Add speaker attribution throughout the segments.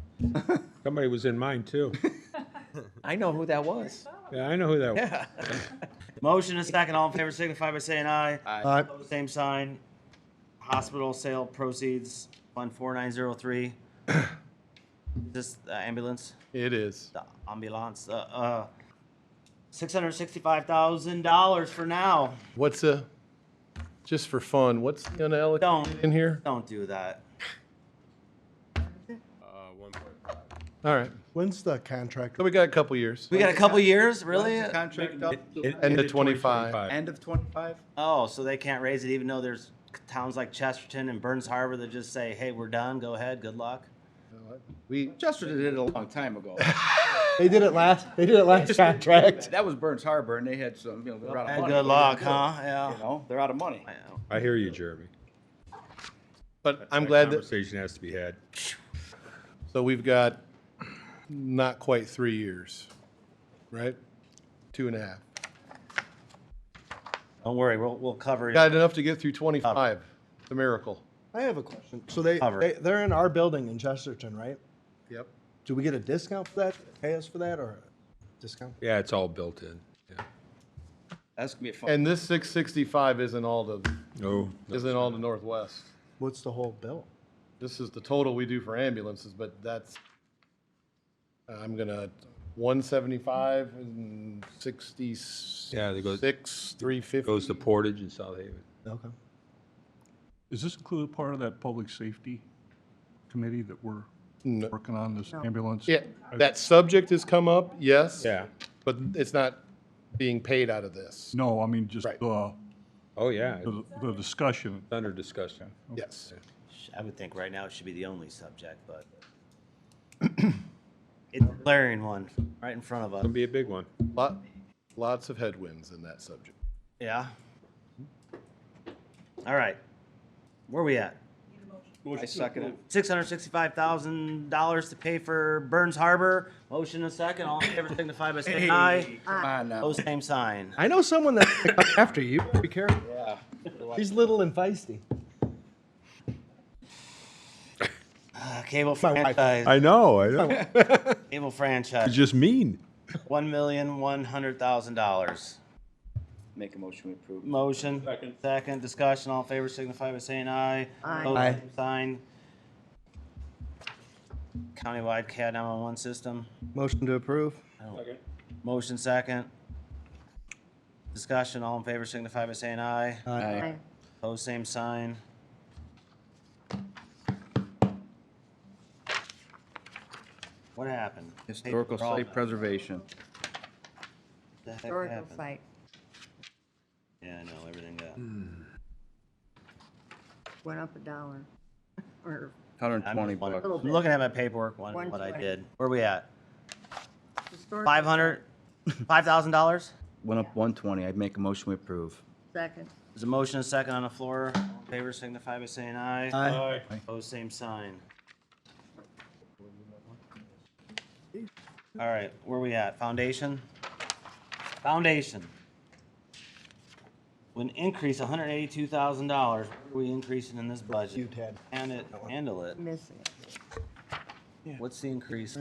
Speaker 1: Somebody was in mine, too.
Speaker 2: I know who that was.
Speaker 1: Yeah, I know who that was.
Speaker 2: Yeah.
Speaker 3: Motion is second. All in favor signify by saying aye.
Speaker 4: Aye.
Speaker 3: Opposed, Same sign. Hospital sale proceeds, fund four nine zero three. This uh, ambulance,
Speaker 4: It is.
Speaker 3: the ambulance, uh, uh, six hundred sixty-five thousand dollars for now.
Speaker 4: What's a, just for fun, what's the unallocated
Speaker 3: Don't.
Speaker 4: in here?
Speaker 3: Don't do that.
Speaker 4: All right.
Speaker 5: When's the contract?
Speaker 4: So we got a couple years.
Speaker 3: We got a couple years, really?
Speaker 6: When's the Contract up,
Speaker 1: It-
Speaker 4: And the
Speaker 1: ended
Speaker 4: 25.
Speaker 6: end of twenty-five?
Speaker 3: Oh, so they can't raise it even though there's towns like Chesterton and Burns Harbor that just say, hey, we're done, go ahead, good luck.
Speaker 4: We,
Speaker 6: Chester did it a long time ago.
Speaker 5: They did it last, they did it last contract.
Speaker 6: That was Burns Harbor and they had some, you know, they're out of
Speaker 3: Hey,
Speaker 6: money.
Speaker 3: good luck, huh?
Speaker 6: You
Speaker 3: Yeah.
Speaker 6: know, they're out of money.
Speaker 3: I know.
Speaker 1: I hear you, Jeremy.
Speaker 4: but I'm
Speaker 1: That
Speaker 4: glad that,
Speaker 1: Conversation has to be had.
Speaker 4: so we've got not quite three years, right? Two and a half.
Speaker 3: Don't worry, we'll, we'll cover it.
Speaker 4: Got enough to get through 25. It's a miracle.
Speaker 5: I have a question. So they,
Speaker 3: Cover.
Speaker 5: they, they're in our building in Chesterton, right?
Speaker 4: Yep.
Speaker 5: Do we get a discount for that? Pay us for that or discount?
Speaker 1: Yeah, it's all built in.
Speaker 6: That's gonna be a fun.
Speaker 4: And this 665 isn't all the,
Speaker 1: No.
Speaker 4: isn't all the Northwest.
Speaker 5: What's the whole bill?
Speaker 4: This is the total we do for ambulances, but that's, I'm gonna, 175 and 66,
Speaker 1: Yeah, they go-
Speaker 4: 350.
Speaker 1: Goes to Portage and South Haven.
Speaker 5: Okay.
Speaker 7: Is this included part of that public safety committee that we're
Speaker 4: No.
Speaker 7: working on, this ambulance?
Speaker 4: Yeah, that subject has come up, yes.
Speaker 1: Yeah.
Speaker 4: But it's not being paid out of this.
Speaker 7: No, I mean, just
Speaker 4: Right.
Speaker 7: the,
Speaker 1: Oh, yeah, it's
Speaker 7: the the discussion.
Speaker 1: under discussion.
Speaker 4: Yes.
Speaker 3: I would think right now it should be the only subject, but it's a glaring one right in front of us.
Speaker 1: It'll be a big one.
Speaker 4: Lot, lots of headwinds in that subject.
Speaker 3: Yeah. All right. Where we at?
Speaker 6: I second it.
Speaker 3: Six hundred sixty-five thousand dollars to pay for Burns Harbor. Motion and second. All in favor signify by saying aye.
Speaker 6: Come on now.
Speaker 3: Pose same sign.
Speaker 5: I know someone that's gonna come after you. Be careful.
Speaker 6: Yeah.
Speaker 5: He's little and feisty.
Speaker 3: Uh, Cable
Speaker 5: My wife.
Speaker 3: franchise.
Speaker 1: know, I know.
Speaker 3: Cable franchise.
Speaker 1: just mean.
Speaker 3: One million, one hundred thousand dollars.
Speaker 6: Make a motion to approve.
Speaker 3: Motion. Second. discussion, all in favor signify by saying aye. Aye.
Speaker 5: Aye.
Speaker 3: Sign. Countywide CAD nine-one-one system,
Speaker 5: Motion to approve.
Speaker 3: motion second. Discussion, all in favor signify by saying aye.
Speaker 6: Aye.
Speaker 3: Pose same sign. What happened?
Speaker 6: Historical
Speaker 3: Paper all
Speaker 6: site
Speaker 3: done.
Speaker 6: preservation.
Speaker 3: The heck
Speaker 8: Historical
Speaker 3: happened?
Speaker 8: site,
Speaker 3: Yeah, I know, everything got.
Speaker 6: Mm,
Speaker 8: went up a dollar, or
Speaker 6: Hundred
Speaker 3: I'm
Speaker 6: and twenty
Speaker 3: just wondering-
Speaker 6: bucks.
Speaker 8: Little
Speaker 3: I'm
Speaker 8: bit.
Speaker 3: Looking at my paperwork, wondering what I
Speaker 8: 120.
Speaker 3: did. Where we at?
Speaker 8: historical.
Speaker 3: Five hundred, five thousand dollars?
Speaker 6: Went up one twenty. I'd make a motion to approve.
Speaker 8: Second,
Speaker 3: There's a motion and a second on the floor. All in favor signify by saying aye.
Speaker 5: Aye.
Speaker 3: Opposed, same sign. All right, where we at? Foundation? Foundation. Would increase hundred eighty-two thousand dollars. What are we increasing in this budget?
Speaker 5: You, Ted.
Speaker 3: Can it, handle it.
Speaker 8: missing it.
Speaker 3: What's the increase?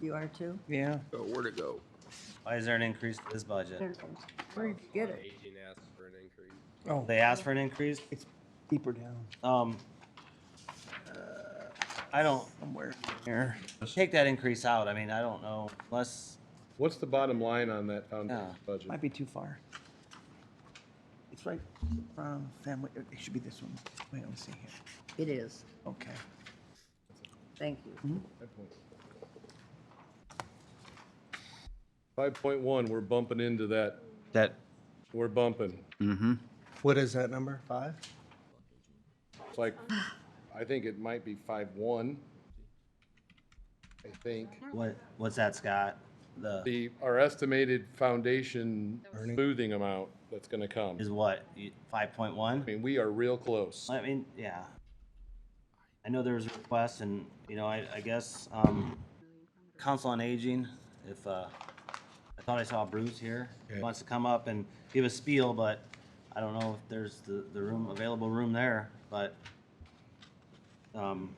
Speaker 8: You are too?
Speaker 2: Yeah.
Speaker 3: Why is there an increase to this budget?
Speaker 8: There it is. Where'd you get it?
Speaker 5: Oh,
Speaker 3: They asked for an increase?
Speaker 5: it's deeper down.
Speaker 3: Um, uh, I don't. Somewhere. Take that increase out, I mean, I don't know, unless,
Speaker 4: What's the bottom line on that foundation
Speaker 3: Yeah.
Speaker 4: budget?
Speaker 2: Might be too far. It's right from family, it should be this one. Wait, let me see here.
Speaker 8: It is,
Speaker 2: Okay.
Speaker 8: thank you.
Speaker 4: 5.1, we're bumping into that,
Speaker 6: That,
Speaker 4: we're bumping.
Speaker 5: What is that number? Five?
Speaker 4: It's like, I think it might be 5.1. I think.
Speaker 3: what, what's that, Scott? The,
Speaker 4: The, our estimated foundation smoothing amount that's gonna come.
Speaker 3: is what, five point one?
Speaker 4: I mean, we are real close.
Speaker 3: I mean, yeah. I know there was a request and, you know, I, I guess, um, Council on Aging, if, uh, I thought I saw Bruce here, He wants to come up and give a spiel, but I don't know if there's the, the room, available room there, but, um,